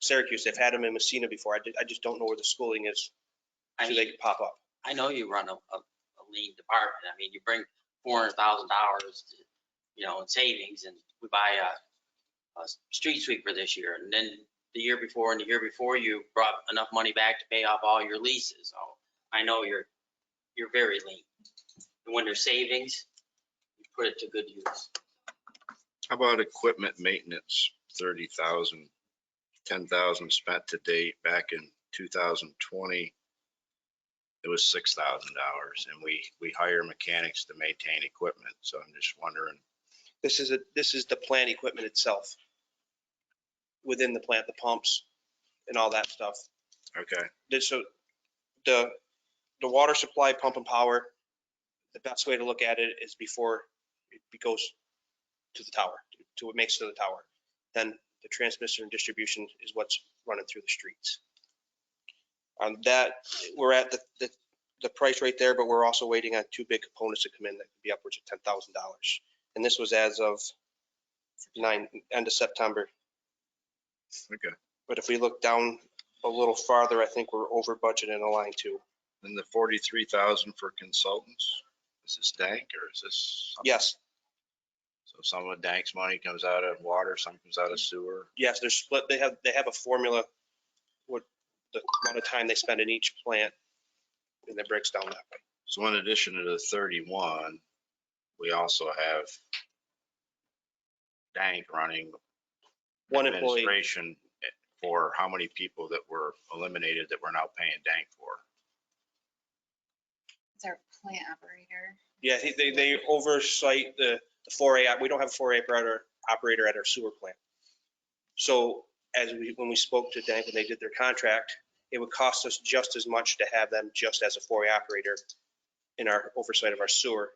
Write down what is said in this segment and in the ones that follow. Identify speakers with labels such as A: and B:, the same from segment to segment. A: Syracuse. They've had them in Messina before. I, ju- I just don't know where the schooling is,
B: I
A: so they
B: mean,
A: could pop up.
B: I know you run a, a a lean department. I mean, you bring four hundred thousand dollars, you know, in savings and we buy a, a street sweeper this year. And then the year before and the year before, you brought enough money back to pay off all your leases. So I know you're, you're very lean. And when there's savings, you put it to good use.
C: How about equipment maintenance, thirty thousand, ten thousand spent to date back in two thousand twenty? It was six thousand dollars and we, we hire mechanics to maintain equipment. So I'm just wondering,
A: This is a, this is the plant equipment itself. Within the plant, the pumps and all that stuff.
C: okay,
A: Did so the, the water supply pump and power, the best way to look at it is before it goes to the tower, to what makes it to the tower. Then the transmission and distribution is what's running through the streets. On that, we're at the, the, the price right there, but we're also waiting on two big components to come in that could be upwards of ten thousand dollars. And this was as of nine, end of September.
C: okay.
A: But if we look down a little farther, I think we're over budget in a line two.
C: Then the forty-three thousand for consultants, is this Dank or is this? some-
A: Yes,
C: So some of Dank's money comes out of water, some comes out of sewer.
A: yes, they're split, they have, they have a formula, what, the amount of time they spend in each plant, and it breaks down that way.
C: So in addition to the thirty-one, we also have Dank running
A: One employee,
C: administration for how many people that were eliminated that we're now paying Dank for.
D: It's our plant operator.
A: yeah, he- they, they oversight the, the four A, we don't have a four A operator, operator at our sewer plant. So as we, when we spoke to Dank, when they did their contract, it would cost us just as much to have them just as a four A operator in our oversight of our sewer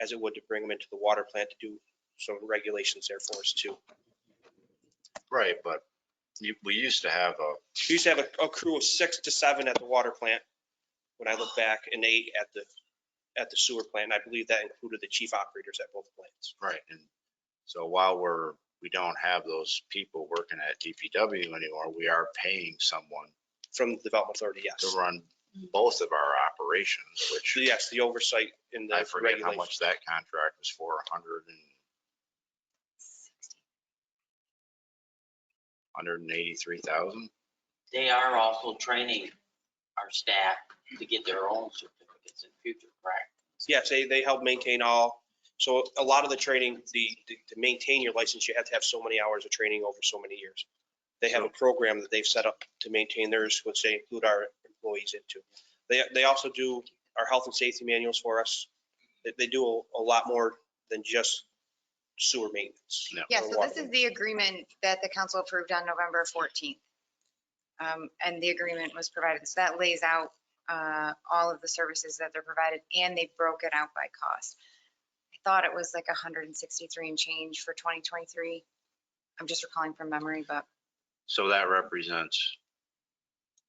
A: as it would to bring them into the water plant to do some regulations there for us too.
C: Right, but you- we used to have a,
A: We used to have a, a crew of six to seven at the water plant, when I look back, and eight at the, at the sewer plant. and I believe that included the chief operators at both plants.
C: right, and so while we're, we don't have those people working at DPW anymore, we are paying someone
A: From the Development Authority, yes.
C: to run both of our operations, which
A: Yes, the oversight in the
C: I forget how
A: regulations.
C: much that contract was for, a hundred and, hundred and eighty-three thousand?
B: They are also training our staff to get their own certificates in future, correct?
A: Yes, they, they help maintain all, so a lot of the training, the, the- to maintain your license, you have to have so many hours of training over so many years. They have a program that they've set up to maintain theirs, which they include our employees into. They, they also do our health and safety manuals for us. They, they do a, a lot more than just sewer maintenance.
C: Yeah.
D: Yeah,
A: or
D: so
A: water
D: this is the agreement that the council approved on November 14th. Um, And the agreement was provided, so that lays out uh, all of the services that they're provided, and they broke it out by cost. I thought it was like 163 and change for 2023. I'm just recalling from memory, but
C: So that represents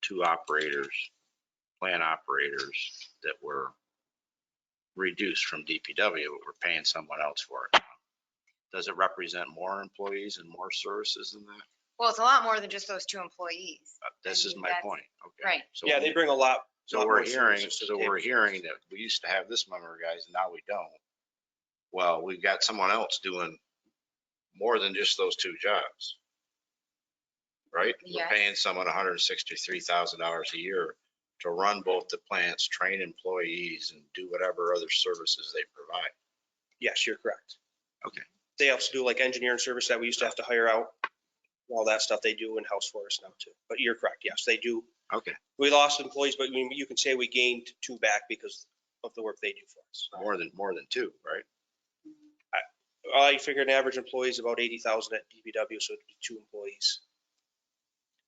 C: two operators, plant operators that were reduced from DPW, but we're paying someone else for it. Does it represent more employees and more services than that?
D: Well, it's a lot more than just those two employees.
C: Uh, This is my
D: That's-
C: point, okay?
D: Right.
C: So-
A: Yeah, they bring a lot.
C: So
A: lot
C: we're
A: more
C: hearing,
A: services to the
C: so
A: table.
C: we're hearing that we used to have this number of guys, now we don't. Well, we've got someone else doing more than just those two jobs. Right? We're
D: Yes.
C: paying someone hundred and sixty-three thousand dollars a year to run both the plants, train employees and do whatever other services they provide.
A: Yes, you're correct.
C: Okay.
A: They also do like engineering service that we used to have to hire out, all that stuff they do in-house for us now too. But you're correct, yes, they do.
C: Okay.
A: We lost employees, but you you can say we gained two back because of the work they do for us.
C: More than, more than two, right?
A: I figure an average employee is about 80,000 at DBW, so it'd be two employees.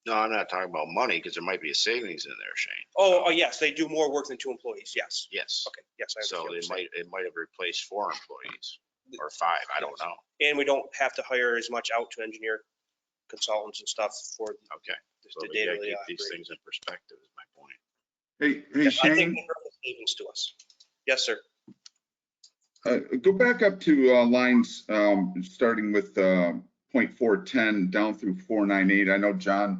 C: No, I'm not talking about money because there might be a savings in there, Shane.
A: Oh, oh, yes, they do more work than two employees, yes.
C: Yes.
A: Okay, yes. I
C: So
A: understand what you're
C: it
A: saying.
C: might, it might have replaced four employees or five, I don't know.
A: And we don't have to hire as much out to engineer consultants and stuff for
C: Okay. So
A: the
C: we
A: data.
C: gotta keep these things in perspective is my point.
E: Hey,
A: I
E: hey
A: think
E: Shane,
A: we'll bring the savings to us. Yes, sir.
E: uh, go back up to uh, lines, um, starting with uh, point 410 down through 498. I know John